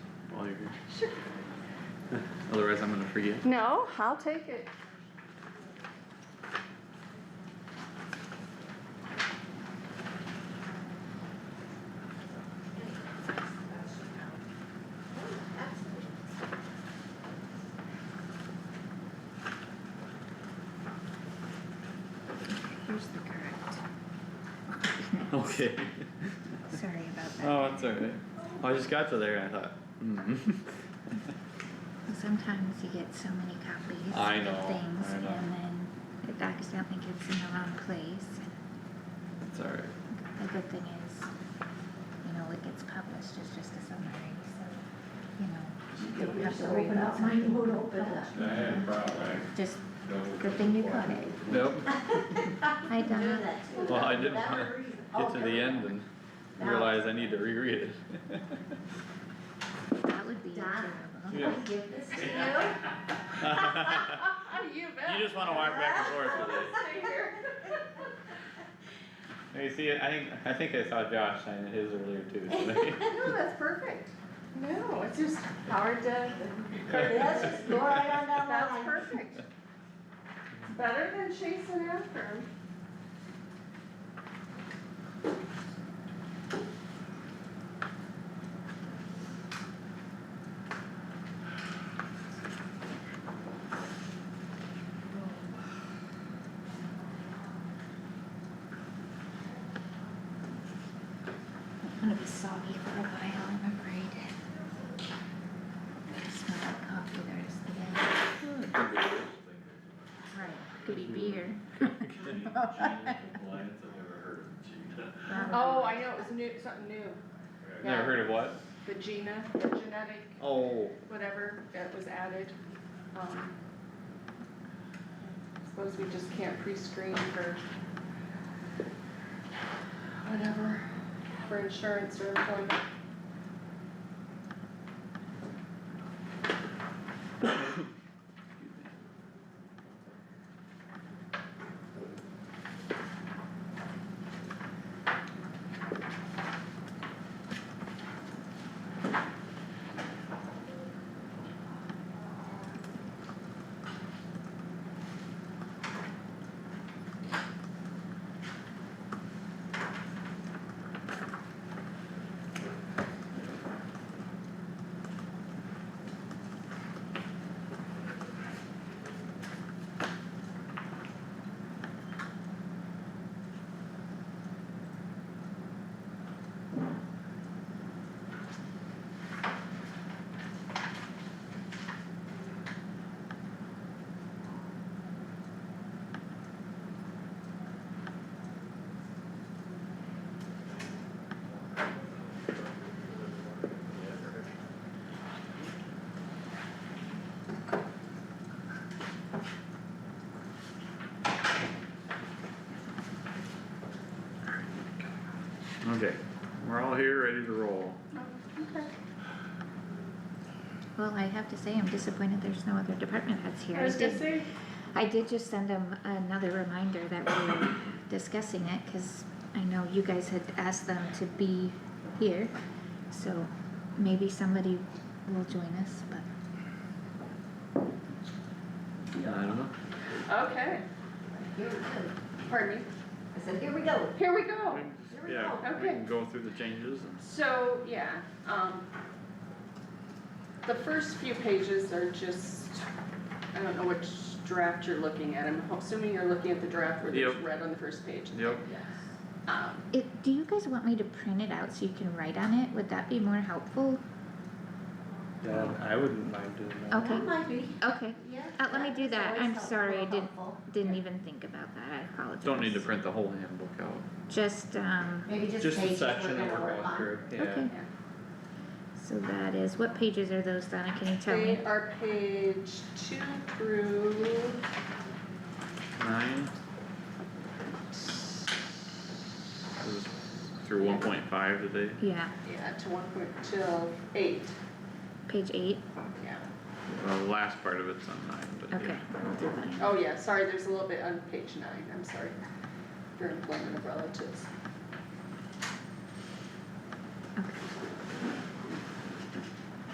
Otherwise, I'm gonna forget. No, I'll take it. Here's the correct, Okay. sorry about that. Oh, that's alright. I just got to there and I thought, hmm. Sometimes you get so many copies I of know, things I know. and then it accidentally gets in the wrong place. It's alright. The good thing is, you know, what gets published is just a summary, so, you know, you don't have to worry about something. Diane Brown, Just, I good thing you caught it. Nope. Hi Donna, Well, I didn't wanna get to the end and realize I need to reread it. that would be Donna. terrible. Yeah. Give this to you. You You just wanna walk back and forth with it. Now, You see, I think, I think I saw Josh sign his earlier too, so. No, that's perfect. No, it's just hard to, Let's just go right on down the that's line. perfect. It's better than chasing after him. I'm gonna be soggy for a while, I'm afraid. Smell like coffee the rest of the day. Right, could be beer. Oh, I know, it was new, something new. Never heard of what? The Gina, the genetic, Oh. whatever, that was added. Um, Suppose we just can't pre-screen for whatever, for insurance or employment. Okay, we're all here, ready to roll. Well, I have to say, I'm disappointed there's no other department heads here. I was gonna did- say, I did just send them another reminder that we were discussing it, cause I know you guys had asked them to be here. So maybe somebody will join us, but I don't know. okay, Here we go. pardon me, I said, here we go. Oh, here we go. Here we Yeah, go. we Okay. can go through the changes and. So, yeah, um, the first few pages are just, I don't know which draft you're looking at, I'm assuming you're looking at the draft where there's Yep. red on the first page. Yep. Um, it, do you guys want me to print it out so you can write on it? Would that be more helpful? Yeah, I wouldn't mind doing that. Okay, That might be, okay, yeah. Uh, let me do it's that. always I'm helpful, sorry, I didn't- helpful. didn't even think about that, I apologize. Don't need to print the whole handbook out. Just, um, Maybe just Just the pages we're section that gonna we're work going on. through, yeah. okay. So that is, what pages are those, Donna, can you tell me? They are page two through Nine is through one point five today. Yeah, yeah, to one point till eight, page eight, yeah. The last part of it's on nine, but okay, yeah. I'll do that. Oh, yeah, sorry, there's a little bit on page nine, I'm sorry, for employment of relatives.